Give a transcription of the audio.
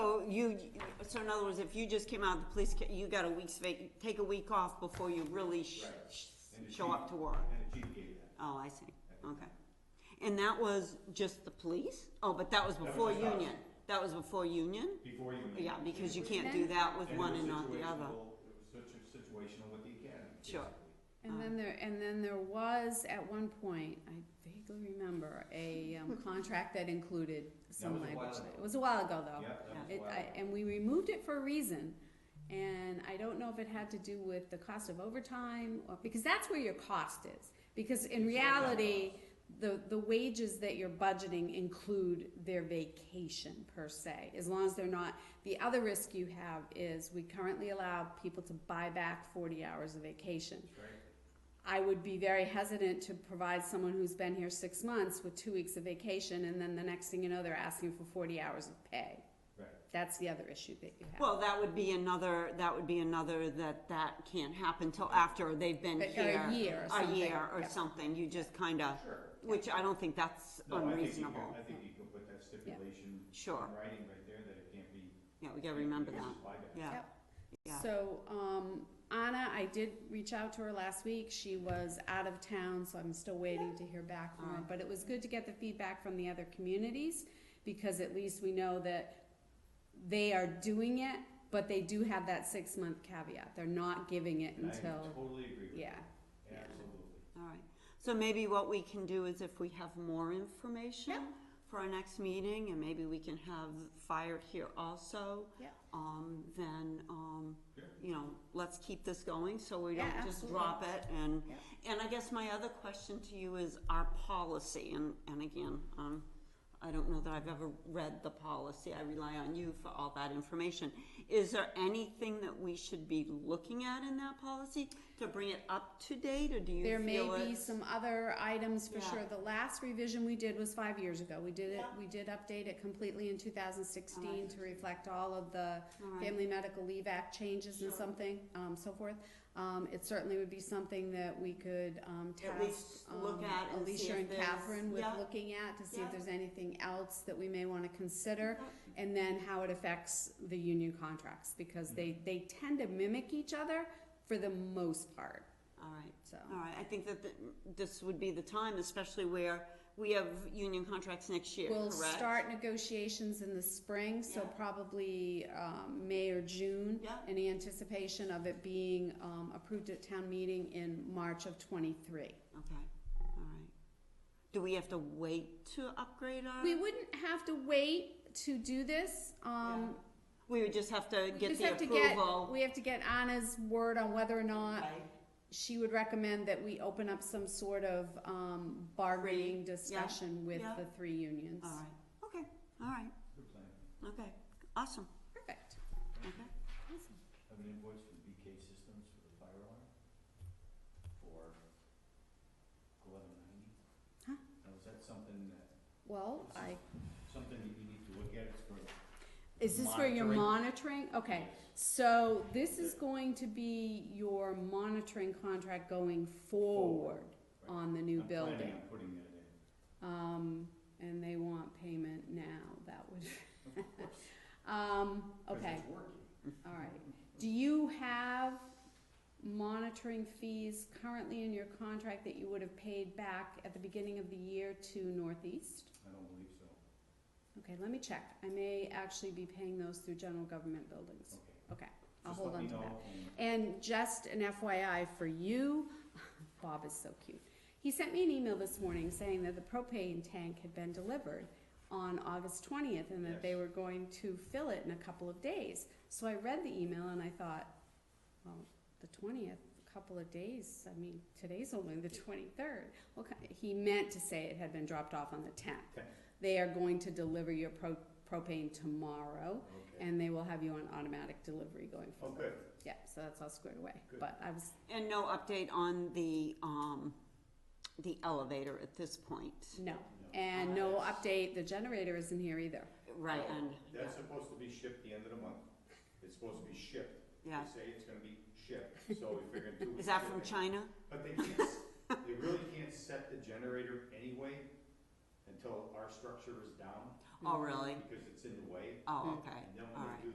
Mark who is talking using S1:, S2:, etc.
S1: you, so in other words, if you just came out of the police, ca- you got a week's vac, take a week off before you really sh-
S2: Right.
S1: sh-
S2: And the
S1: show up
S2: chief-
S1: to work.
S2: And the chief gave that.
S1: Oh, I see, okay. And that was just the police? Oh, but that was
S2: was
S1: before
S2: just us.
S1: union? That was before union?
S2: Before you.
S1: Yeah, because you can't
S3: Then-
S1: do that with
S2: it
S1: one
S2: was
S1: and not the
S2: situational-
S1: other.
S2: It was such a situational with the academy.
S1: Sure.
S2: basically.
S3: And then there, and then there was at one point, I vaguely remember, a um, contract that included some
S2: was a
S3: language.
S2: while ago.
S3: It was a while ago, though.
S2: Yep, that was
S3: It,
S2: why.
S3: I, and we removed it for a reason, and I don't know if it had to do with the cost of overtime, or, because that's where your cost is. Because
S2: It's
S3: in
S2: overtime
S3: reality, the, the wages that you're budgeting include their vacation per se, as long as they're not, the other risk you have is we currently allow people to buy back forty hours of vacation.
S2: That's right.
S3: I would be very hesitant to provide someone who's been here six months with two weeks of vacation, and then the next thing you know, they're asking for forty hours of pay.
S2: Right.
S3: That's the other issue that you have.
S1: Well, that would be another, that would be another that that can't happen till after they've been
S3: But
S1: here.
S3: A year or
S1: A
S3: something.
S1: year or
S3: Yeah.
S1: something, you just kinda,
S2: Sure.
S1: which I don't think that's
S2: No, I think you could,
S1: unreasonable.
S2: I think you could put that stipulation in
S1: Sure.
S2: writing right there that it can't be.
S1: Yeah, we gotta remember
S2: it's
S1: that,
S2: just buyback.
S1: yeah.
S3: Yep.
S1: Yeah.
S3: So, um, Anna, I did reach out to her last week. She was out of town, so I'm still waiting to hear back from her.
S1: Alright.
S3: But it was good to get the feedback from the other communities, because at least we know that they are doing it, but they do have that six-month caveat. They're not giving it
S2: And I
S3: until,
S2: totally agree with you.
S3: yeah. yeah.
S2: Absolutely.
S1: All right, so maybe what we can do is if we have more information
S3: Yep.
S1: for our next meeting, and maybe we can have fired here also.
S3: Yep.
S1: Um, then, um,
S2: Sure.
S1: you know, let's keep this going, so we
S3: Yeah,
S1: don't just
S3: absolutely.
S1: drop it, and,
S3: Yep.
S1: and I guess my other question to you is our policy, and, and again, um, I don't know that I've ever read the policy, I rely on you for all that information. Is there anything that we should be looking at in that policy to bring it up to date, or do you
S3: There may
S1: feel
S3: be
S1: it's-
S3: some other items for
S1: Yeah.
S3: sure. The last revision we did was five years ago. We did it, we did update it completely in two thousand sixteen to reflect all of the
S1: All right.
S3: Family Medical Leave Act changes and something, um, so forth. Um, it certainly would be something that we could, um,
S1: At
S3: task,
S1: least look
S3: um,
S1: at and see
S3: Alicia
S1: if
S3: and
S1: there's-
S3: Catherine with
S1: yeah.
S3: looking at to see
S1: Yeah.
S3: if there's anything else that we may wanna consider. And then how it affects the union contracts,
S1: Mm.
S3: because they, they tend to mimic each other for the most part,
S1: All right,
S3: so.
S1: all right, I think that the- this would be the time, especially where we have union contracts next year,
S3: We'll
S1: correct?
S3: start negotiations in the spring, so
S1: Yeah.
S3: probably um, May or June.
S1: Yeah.
S3: In anticipation of it being um, approved at town meeting in March of twenty-three.
S1: Okay, all right. Do we have to wait to upgrade our?
S3: We wouldn't have to wait to do this. um,
S1: We would just have to
S3: we
S1: get
S3: just
S1: the
S3: have to get-
S1: approval.
S3: We have to get Anna's word on whether or not
S1: Right.
S3: she would recommend that we open up some sort of um, bargaining discussion with
S1: yeah.
S3: the three unions.
S1: All right, okay, all right,
S2: Good plan.
S1: okay, awesome,
S3: Perfect.
S1: okay.
S2: Have an invoice from BK Systems for the fire alarm for eleven ninety.
S3: Huh?
S2: Now, is that something that,
S3: Well, I
S2: something that you need to look at, it's for.
S3: Is this where you're monitoring? Okay, so this is
S2: Yeah.
S3: going to be your monitoring contract going forward
S2: Right.
S3: on the new
S2: I'm planning
S3: building.
S2: on putting that in.
S3: Um, and they want payment now, that would,
S2: Of course, 'cause
S3: um, okay,
S2: it's working.
S3: all right. Do you have monitoring fees currently in your contract that you would have paid back at the beginning of the year to Northeast?
S2: I don't believe so.
S3: Okay, let me check. I may actually be paying those through general government buildings.
S2: Okay.
S3: Okay, I'll
S2: Just
S3: hold
S2: let
S3: on
S2: me
S3: to that.
S2: know and-
S3: And just an FYI for you, Bob is so cute. He sent me an email this morning saying that the propane tank had been delivered on August twentieth and that they
S2: Yes.
S3: were going to fill it in a couple of days. So I read the email and I thought, well, the twentieth, a couple of days, I mean, today's only the twenty-third. Well, ki- he meant to say it had been dropped off on the tenth.
S2: Okay.
S3: They are going to deliver your pro- propane tomorrow
S2: Okay.
S3: and they will have you on automatic delivery going
S2: Oh,
S3: forward.
S2: good.
S3: Yeah, so that's all squared away,
S2: Good.
S3: but I was,
S1: And no update on the, um, the elevator at this point,
S3: no, and no update, the generator isn't here either.
S1: right,
S2: No,
S1: and, yeah,
S2: Oh, That's supposed to be shipped the end of the month. It's supposed to be shipped.
S1: yeah.
S2: They say it's gonna be shipped, so we figured two weeks.
S1: Is that from
S2: shipping.
S1: China?
S2: But they can't, s- they really can't set the generator anyway until our structure is down,
S1: Oh, really?
S2: because it's in the way.
S1: Oh, okay,
S3: Mm-hmm.
S2: And then
S1: all